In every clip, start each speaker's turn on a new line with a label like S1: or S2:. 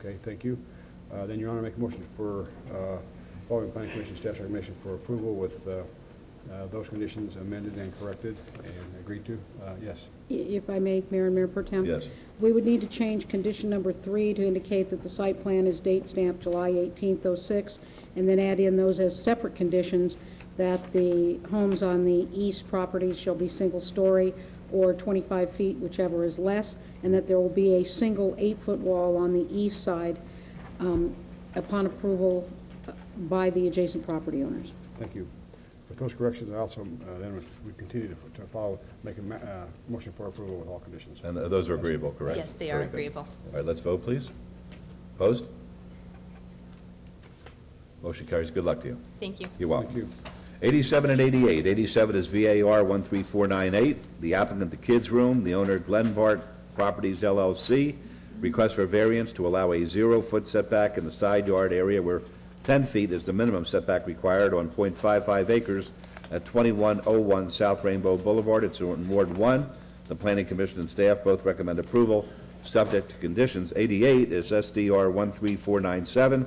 S1: Okay, thank you. Uh, Then, Your Honor, make a motion for uh, following Planning Commission staff's recommendation for approval with uh, uh, those conditions amended and corrected and agreed to. Uh, Yes.
S2: I- If I may, Mayor and Mayor Pro Tem?
S3: Yes.
S2: We would need to change condition number three to indicate that the site plan is date stamped July 18th, '06, and then add in those as separate conditions, that the homes on the east property shall be single-story or 25 feet, whichever is less, and that there will be a single eight-foot wall on the east side um, upon approval uh, by the adjacent property owners.
S1: Thank you. With those corrections, I also, uh, then we continue to- to follow, make a ma- uh, motion for approval with all conditions.
S3: And those are agreeable, correct?
S4: Yes, they
S3: Very
S4: are
S3: good.
S4: agreeable.
S3: All right, let's vote, please. Opposed? Motion carries. Good luck to you.
S4: Thank you.
S3: You're
S1: Thank
S3: welcome.
S1: you.
S3: 87 and 88. 87 is VAR 13498, the applicant, The Kids Room, the owner Glenbart Properties LLC, request for variance to allow a zero-foot setback in the side yard area where 10 feet is the minimum setback required on .55 acres at 2101 South Rainbow Boulevard. It's in Ward 1. The Planning Commission and staff both recommend approval, subject to conditions. 88 is SDR 13497,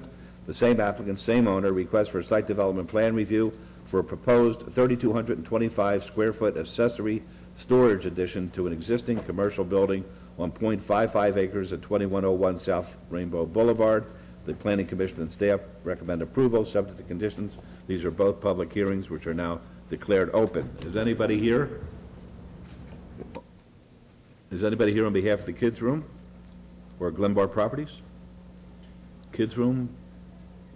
S3: the same applicant, same owner, request for site development plan review for a proposed 3,225-square-foot accessory storage addition to an existing commercial building on .55 acres at 2101 South Rainbow Boulevard. The Planning Commission and staff recommend approval, subject to conditions. These are both public hearings, which are now declared open. Is anybody here? Is anybody here on behalf of the Kids Room or Glenbar Properties? Kids Room,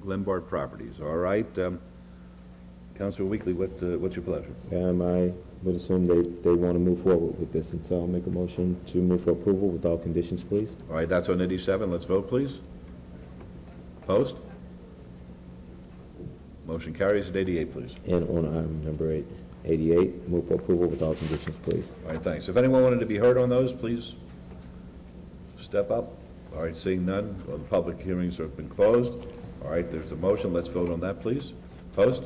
S3: Glenbar Properties, all right. um, Counselor Weekly, what, uh, what's your pleasure?
S5: Um, I would assume they, they want to move forward with this, and so I'll make a motion to move for approval with all conditions, please.
S3: All right, that's on 87, let's vote, please. Post. Motion carries at 88, please.
S5: And on item number eight, eighty-eight, move for approval with all conditions, please.
S3: All right, thanks. If anyone wanted to be heard on those, please step up. All right, seeing none, well, the public hearings have been closed. All right, there's a motion, let's vote on that, please. Post.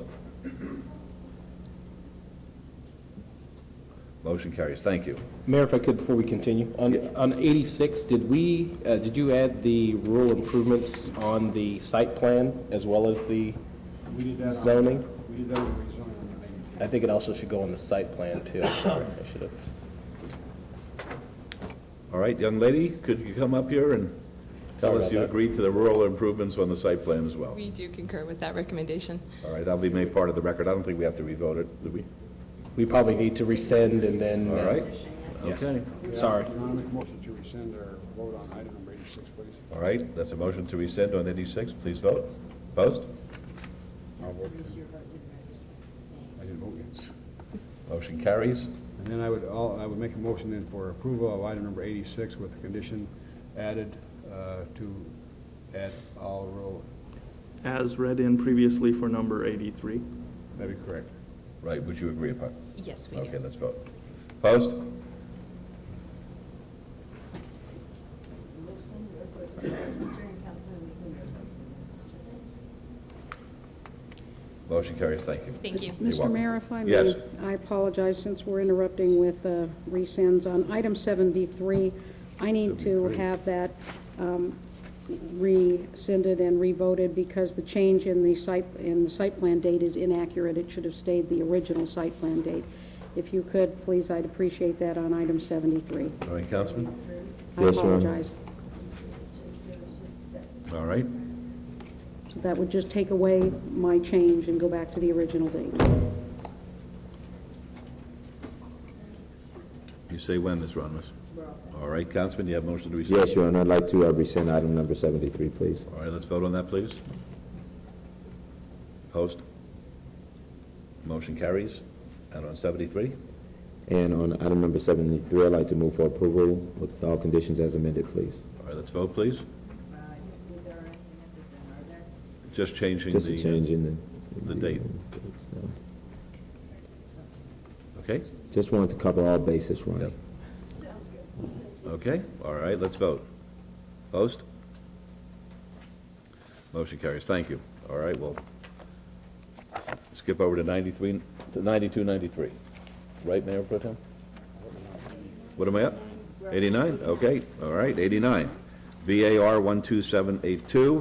S3: Motion carries, thank you.
S6: Mayor, if I could, before we continue, on, on 86, did we, uh, did you add the rural improvements on the site plan as well as the zoning?
S1: We did that when we zoned on the main.
S6: I think it also should go on the site plan too, I'm sorry, I should have.
S3: All right, young lady, could you come up here and tell
S6: Sorry
S3: us
S6: about
S3: you
S6: that.
S3: agreed to the rural improvements on the site plan as well?
S7: We do concur with that recommendation.
S3: All right, that'll be made part of the record. I don't think we have to revote it, do we?
S6: We probably need to rescind and then.
S3: All
S6: uh,
S3: right?
S6: Yes.
S3: Okay.
S6: Sorry.
S1: Your Honor, make a motion to rescind our vote on item number 86, please.
S3: All right, that's a motion to rescind on 86. Please vote. Post.
S1: I'll vote yes. I didn't vote yes.
S3: Motion carries.
S1: And then I would, all- I would make a motion then for approval of item number 86 with the condition added uh, to add all rural,
S8: as read in previously for number 83.
S1: that'd be correct.
S3: Right, would you agree upon?
S4: Yes, we
S3: Okay,
S4: do.
S3: let's vote. Post. Motion carries. Thank you.
S4: Thank you.
S3: You're
S2: Mr.
S3: welcome.
S2: Mayor, if I may?
S3: Yes.
S2: I apologize, since we're interrupting with uh, resends. On item 73, I need to
S3: 73.
S2: have that um, rescinded and revoted because the change in the site, in the site plan date is inaccurate. It should have stayed the original site plan date. If you could, please, I'd appreciate that on item 73.
S3: All right, Councilman?
S2: I
S5: Yes, Your Honor.
S2: apologize.
S3: All right.
S2: So that would just take away my change and go back to the original date.
S3: You say when, Ms. Ronmas? All right, Councilman, you have motion to rescind?
S5: Yes, Your Honor, I'd like to uh, rescind item number seventy-three, please.
S3: All right, let's vote on that, please. Post. Motion carries. And on 73?
S5: And on item number seventy-three, I'd like to move for approval with all conditions as amended, please.
S3: All right, let's vote, please. Just changing
S5: Just a change
S3: the, uh,
S5: in the.
S3: the date. okay?
S5: Just wanted to cover all bases, Ronnie.
S3: Okay, all right, let's vote. Post? Motion carries, thank you. All right, we'll skip over to 93, to 92, 93. Right, Mayor Pro Tem? What am I up? 89, okay, all right, 89. VAR 12782,